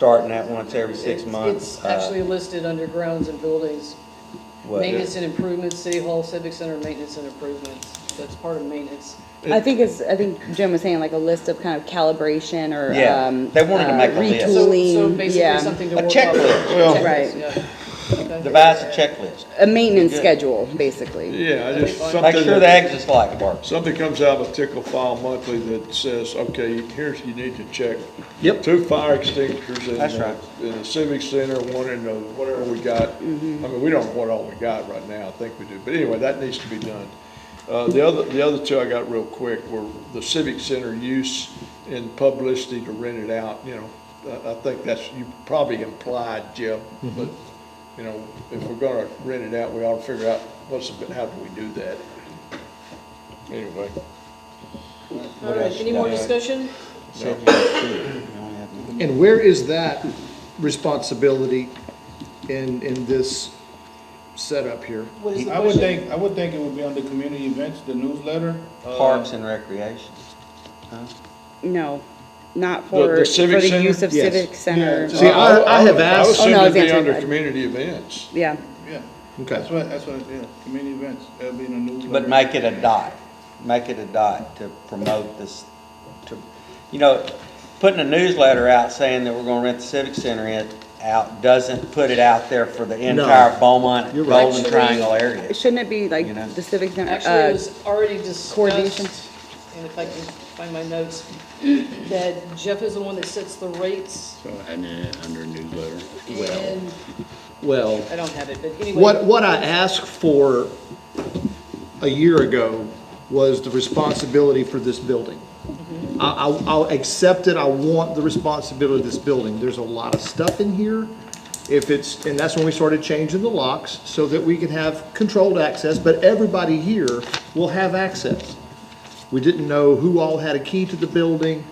starting that once every six months. It's uh, actually listed under grounds and buildings, what- maintenance and improvements, city hall, civic center, maintenance and improvements. That's part of maintenance. I think it's, I think Jim was saying like a list of kind of calibration or, Yeah, um. they wanted to uh, make a list. So, so retooling, yeah. basically something to A work off. checklist. Well- Right. Right. Devise a checklist. A maintenance schedule, basically. Yeah, I just, Make something, sure the that- exit's light works. something comes out of Tickle File Monthly that says, okay, here's, you need to check. Yep. Two fire extinguishers in That's right. the, in the civic center, one in the, whatever we got. I mean, we don't know what all we got right now, I think we do, but anyway, that needs to be done. Uh, the other, the other two I got real quick were the civic center use and publicity to rent it out, you know. I, I think that's, you probably implied, Jeff, Mm-hmm. but, you know, if we're gonna rent it out, we ought to figure out what's, the- how do we do that? Anyway, All right, any more discussion? And where is that responsibility in, in this setup here? What is the I would question? think, I would think it would be on the community events, the newsletter. uh, Parks and recreation. No, not The- for, the for civic the use center? of Yes. civic center. See, I, I have I was asked, Oh, no, I was assuming be answering under that. community events. Yeah, Yeah, okay, that's what, that's what, yeah, community events, that'll be in the newsletter. But make it a dot, make it a dot to promote this, to, you know, putting a newsletter out saying that we're gonna rent the civic center in, out, doesn't put it out there for the entire Beaumont, You're right. Golden Triangle area. shouldn't it be like You know. the civic center, Actually, it uh, was already discussed. coordination. And if I can find my notes, that Jeff is the one that sets the rates And then under newsletter. and, well. I don't have it, but anyway. What, what I asked for a year ago was the responsibility for this building. I, I, I'll accept it, I want the responsibility of this building, there's a lot of stuff in here. If it's, and that's when we started changing the locks, so that we could have controlled access, but everybody here will have access. We didn't know who all had a key to the building.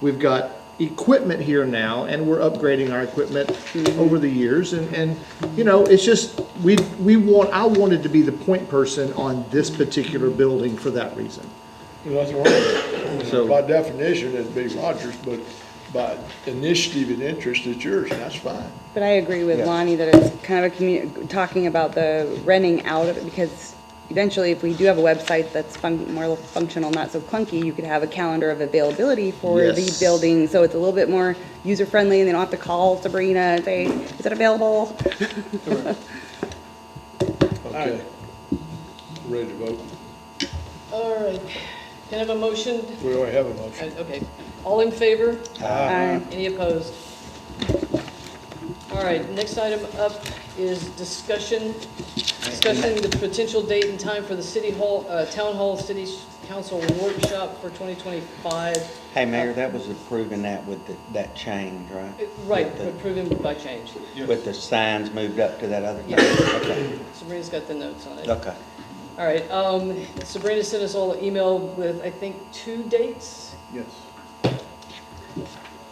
We've got equipment here now, and we're upgrading our equipment Mm-hmm. over the years. And, and, you know, it's just, we, we want, I wanted to be the point person on this particular building for that reason. Nothing wrong with So- it. By definition, it'd be Rogers, but by initiative and interest, it's yours, and that's fine. but I agree with Lonnie that it's kind of a commu, talking about the renting out of it because eventually if we do have a website that's fun, more functional, not so clunky, you could have a calendar of availability for the Yes. building. So it's a little bit more user-friendly and they don't have to call Sabrina and say, is it available? Okay. Ready to vote? All right, can I have a motion? We already have a motion. Uh, Okay, all in favor? Uh, Any opposed? All right, next item up is discussion, discussing the potential date and time for the city hall, uh, town hall, city council workshop for 2025. Hey, Mayor, that was approving that with the- that change, right? Uh, Right, With approving by change. the- With the signs moved up to that other. Yeah. Okay, Sabrina's got the notes on it. Okay. All right, um, Sabrina sent us all an email with, I think, two dates. Yes.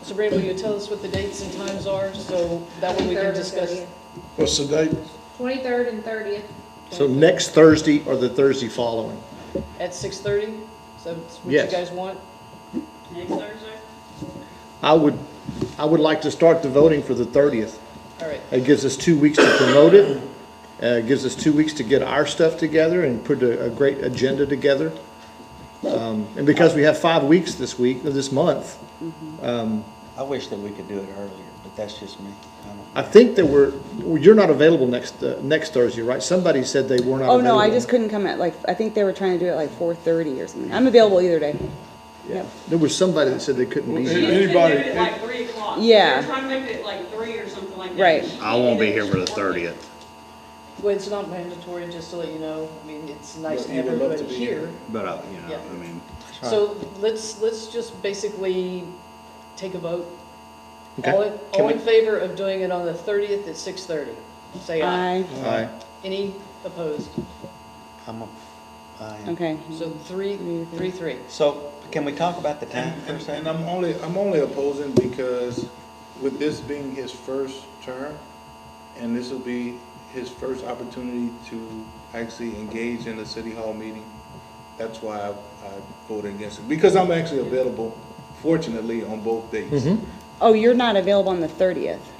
Sabrina, will you tell us what the dates and times are, so that way we can 23rd and discuss? 30th. What's the date? 23rd and 30th. So next Thursday or the Thursday following. At 6:30? So that's what you Yes. guys want? Next Thursday? I would, I would like to start the voting for the thirtieth. All right, It gives us two weeks to promote it, uh, it gives us two weeks to get our stuff together and put a, a great agenda together. Um, and because we have five weeks this week, uh, this month, I wish that we could do it earlier, but that's just me. I don't- I think that we're, you're not available next, uh, next Thursday, right? Somebody said they were not Oh, available. no, I just couldn't come at like, I think they were trying to do it like four thirty or something. I'm available either day. Yep. There was somebody that said they couldn't be Well, here. it- She was gonna do it Anybody- like three o'clock. Yeah. They were trying to make it like three or something like that. Right. I won't be here for the thirtieth, well, it's not mandatory, just to let you know, I mean, it's nice to But have you would love to everybody be here. here. but I, you know, Yeah. I mean, So let's, let's just basically take a vote. Okay. All in, all in favor of doing it on the 30th at 6:30? Say aye. I, Aye. Any opposed? I'm a, I am. okay. So three, three, three. So can we talk about the time for a And, and second? I'm only, I'm only opposing because with this being his first term, and this will be his first opportunity to actually engage in a city hall meeting, that's why Mm-hmm. I, I voted against it, because I'm actually available, fortunately, on both dates. Oh, you're not available on the thirtieth?